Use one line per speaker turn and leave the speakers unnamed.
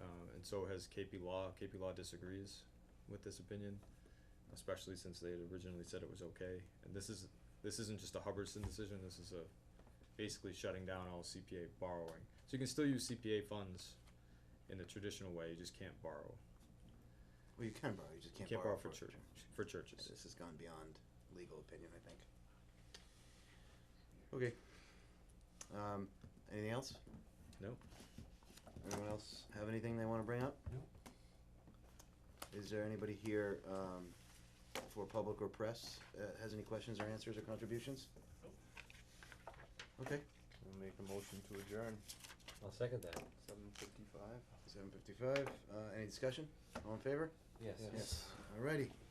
Uh, and so has KP Law. KP Law disagrees with this opinion, especially since they had originally said it was okay. And this is, this isn't just a Hubbardson decision, this is a, basically shutting down all CPA borrowing. So you can still use CPA funds in the traditional way, you just can't borrow,
Well, you can borrow, you just
you
can't
can't
borrow
borrow for
for-
church, for
Yeah,
churches.
This has gone beyond legal opinion, I think. Okay. Um, anything else?
No.
Anyone else have anything they wanna bring up?
No.
Is there anybody here, um, for public or press, uh, has any questions or answers or contributions? Okay,
I'll make a motion to adjourn.
I'll second that.
Seven fifty-five?
seven fifty-five, uh, any discussion? All in favor?
Yes.
Alrighty,